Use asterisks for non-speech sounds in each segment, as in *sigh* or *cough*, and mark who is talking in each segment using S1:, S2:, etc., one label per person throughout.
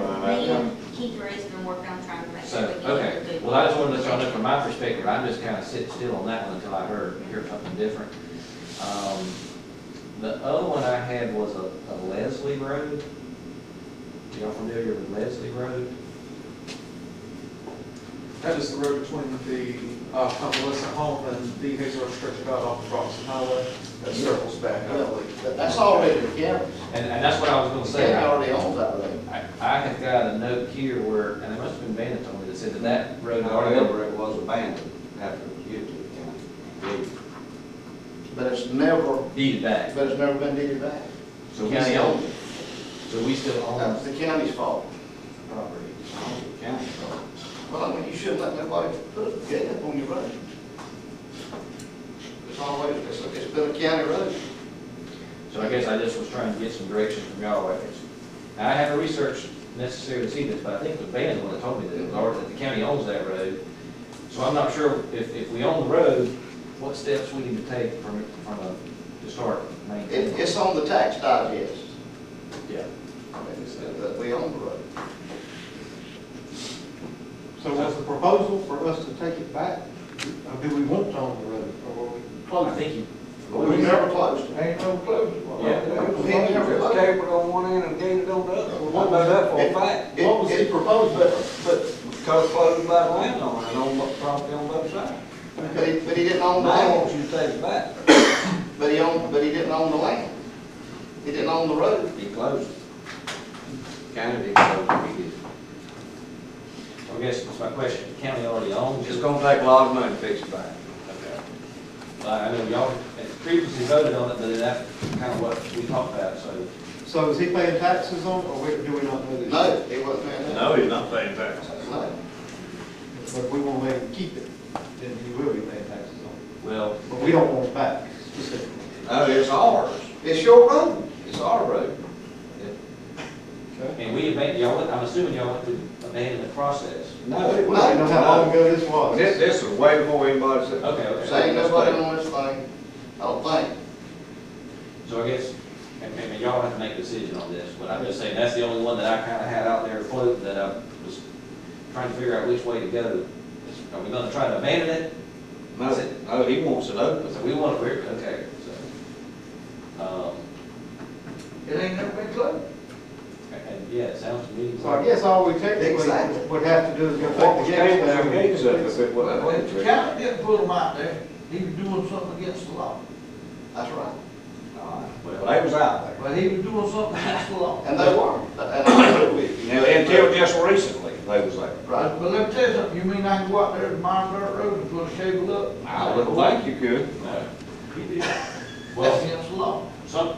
S1: Me, Keith Ray's been working on trying to make
S2: So,
S1: sure we get
S2: okay,
S1: it.
S2: well, I just wanted to let y'all know from my perspective, I'm just kind of sitting still on that one until I heard, hear something different. Um, The other one I had was a a Leslie Road. Y'all familiar with Leslie Road?
S3: That is the road between the uh, convalescent home and the Hazel Road Stretch about off the Bronson Highway that circles back, I believe.
S4: But That's already the county's.
S2: And, and that's what I was gonna
S4: The
S2: say.
S4: county
S2: I,
S4: already owns that road.
S2: I have got a note here where, and it must have been Bandit told me that said that that road.
S5: However, it was abandoned after it was given to the county.
S4: But it's never,
S2: Deeded back.
S4: but it's never been deeded back.
S2: So we
S4: County
S2: still,
S4: owns it.
S2: so we still own
S4: That's the county's fault.
S5: Property, it's owned by the county, so
S4: Well, I mean, you shouldn't let nobody put a gate up on your road. It's always, it's, it's been a county road.
S2: So I guess I just was trying to get some direction from y'all. I guess. Now, I haven't researched necessarily to see this, but I think the band one that told me that, it was already- that the county owns that road. So I'm not sure if, if we own the road, what steps we need to take from, from a, to start
S4: It,
S2: maintaining.
S4: it's on the tax digest.
S2: Yeah.
S4: I mean, it's- uh, that we own the road.
S6: So was the proposal for us to take it back? Or do we want to own the road, or were we
S2: I
S6: close?
S2: think you.
S4: We never closed it.
S5: ain't no clue.
S2: Yeah.
S5: It's gated on one end and gated on the other, we know that for a fact.
S4: It-
S6: What was
S4: it-
S6: the proposal?
S4: But, but,
S5: Because closed by the landowner and on the property on both sides.
S4: but he, but he didn't own the
S5: Now,
S4: land.
S5: once you take it back,
S4: But he owned, but he didn't own the land. He didn't own the road.
S5: he closed it. County did close it, he did.
S2: I guess that's my question. The county already owns
S5: It's
S2: it.
S5: gonna take a lot of money to fix it back.
S2: But I know y'all had previously voted on it, but that's kind of what we talked about, so.
S6: So is he paying taxes on, it, or we- do we not know this?
S4: No, he wasn't there.
S7: No, he's not paying taxes.
S4: No.
S6: But if we want to let him keep it, then he will be paying taxes on
S2: Well,
S6: it. But we don't want it back specifically.
S5: No, it's ours.
S4: It's your road.
S5: It's our road.
S2: and we abandoned, y'all, went- I'm assuming y'all went through the abandonment process.
S5: No,
S6: We don't know how long ago this was.
S5: This, this is way before anybody said.
S2: Okay, okay.
S4: There ain't nobody on this thing, I don't think.
S2: So I guess, and, and y'all have to make a decision on this, but I'm just saying, that's the only one that I kinda had out there floating that I was trying to figure out which way to go. Are we gonna try to abandon it?
S5: No, no, he wants it
S2: So
S5: open.
S2: we wanna, we're, okay, so. Um,
S4: It ain't never been closed.
S2: um, and, yeah, it sounds to me.
S6: So I guess all we
S4: Exactly.
S6: technically would have to do is go
S5: What was
S6: take the
S5: Gates
S6: gates
S5: there,
S6: down.
S5: Gates up if it
S3: Well,
S5: wasn't.
S3: the county didn't put him out there, he was doing something against the law,
S4: That's right.
S5: Well, they was out there.
S3: but he was doing something against the law.
S4: And they were, and I *coughs* agree with you.
S5: Now, until just recently, they was there.
S4: Right.
S3: But but let me tell you something, you mean I can go out there to mine dirt road and put a shovel up?
S5: I wouldn't think you could.
S2: No.
S3: That's
S2: Well,
S3: against the law.
S2: some,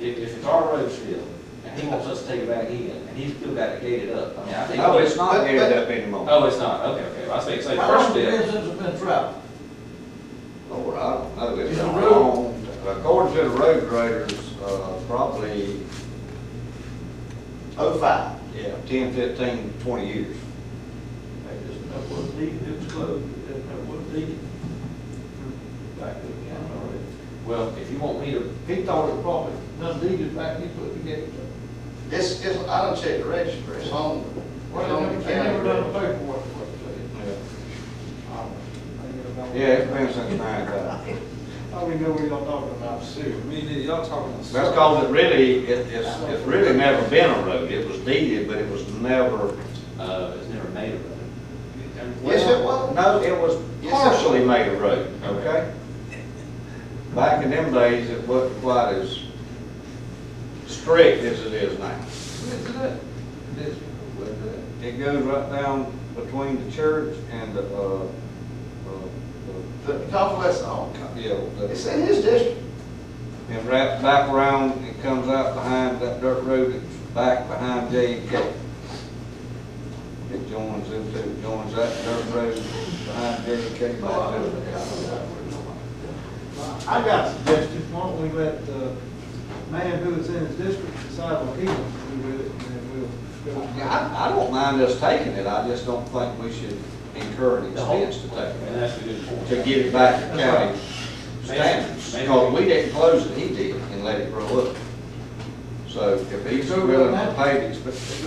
S2: if, if it's our road still, and he wants us to take it back in, and he's still got it gated up, I mean, I think.
S5: No, it's
S4: But-
S5: not
S4: but-
S5: ended up anymore.
S2: Oh, it's not, okay, okay, I was thinking, so
S3: How
S2: first step,
S3: long has it been since it's been traveled?
S5: Lord, Oh, I don't know, it's
S3: It's a
S5: been
S3: road.
S5: long, according to the road graders, uh, probably,
S4: Oh, five.
S5: yeah, ten, fifteen, twenty years.
S3: That isn't, that wasn't needed, it was closed, that that wasn't needed. Back to the county already.
S2: well, if you want me to
S3: He thought it probably done needed back, he put the gate up.
S4: It's, it's, I don't check the registry, it's on, it's
S3: Well,
S4: on
S3: they
S4: the
S3: never- they never done the
S4: county.
S3: paperwork, what they
S5: Yeah, it's been since nine thousand.
S6: I don't even know what y'all talking about.
S7: Me, neither. y'all talking. about-
S5: That's because it really, it, it's, it's really never been a road. It was deeded, but it was never.
S2: Uh, it's never made of it.
S4: Yes, it was.
S5: No, it was
S4: Yes, it
S5: partially made a road,
S2: Okay.
S5: okay? Back in them days, it wasn't quite as strict as it is now.
S3: Where's it at? This, where's it at?
S5: It goes right down between the church and the, uh, uh,
S4: The convalescent home.
S5: the- yeah,
S4: It's
S5: the-
S4: in his district.
S5: and wraps back around and comes out behind that dirt road that's back behind J and K. It joins into, joins that dirt road behind J and K back to the.
S6: I got a suggestion, why don't we let the man who is in his district decide what he wants to do with it, and then we'll go.
S5: I, I don't mind us taking it, I just don't think we should incur an expense to
S2: And
S5: take
S2: that's a good point.
S5: it, to get it back to county
S2: Maybe-
S5: standards.
S2: maybe-
S5: Because we didn't close it, he did, and let it grow up. So if he's willing to pay the expense,